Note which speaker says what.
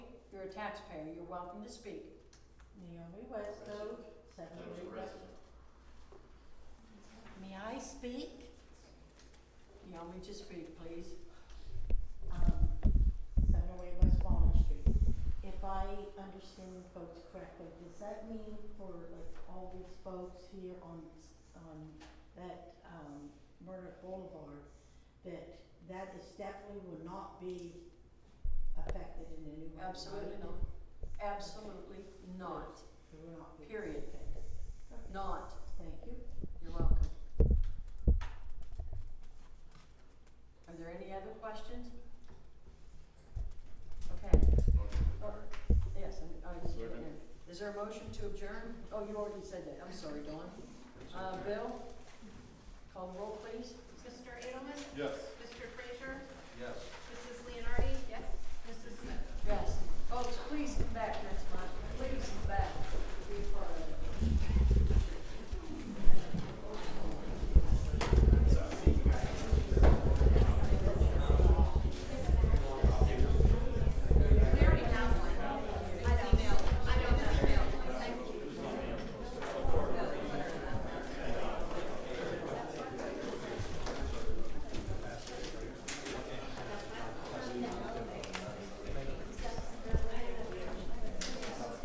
Speaker 1: You're a taxpayer, you're welcome to speak.
Speaker 2: Naomi Westbrook,
Speaker 3: That
Speaker 2: second
Speaker 3: was a
Speaker 2: degree.
Speaker 3: resident.
Speaker 2: May I speak?
Speaker 1: You want me to speak, please?
Speaker 2: um, Summerway West Walnut Street. If I understand folks correctly, does that mean for like all these folks here on, s- on that, um, Murdoch Boulevard, that that is definitely will not be affected in any way? right?
Speaker 1: Absolutely not. Absolutely not.
Speaker 2: It will not be
Speaker 1: Period.
Speaker 2: affected.
Speaker 1: Not.
Speaker 2: Thank you.
Speaker 1: You're welcome. Are there any other questions? Okay,
Speaker 3: Motion to adjourn.
Speaker 1: yes, I'm, I was,
Speaker 3: Second.
Speaker 1: is there a motion to adjourn? Oh, you already said that. I'm sorry, Dawn. Uh, Bill? Call the roll, please.
Speaker 4: Mr. Edelman?
Speaker 3: Yes.
Speaker 4: Mr. Frazier?
Speaker 3: Yes.
Speaker 4: Mrs. Leonardi? Yes. Mrs. Smith?
Speaker 1: Yes. Folks, please come back next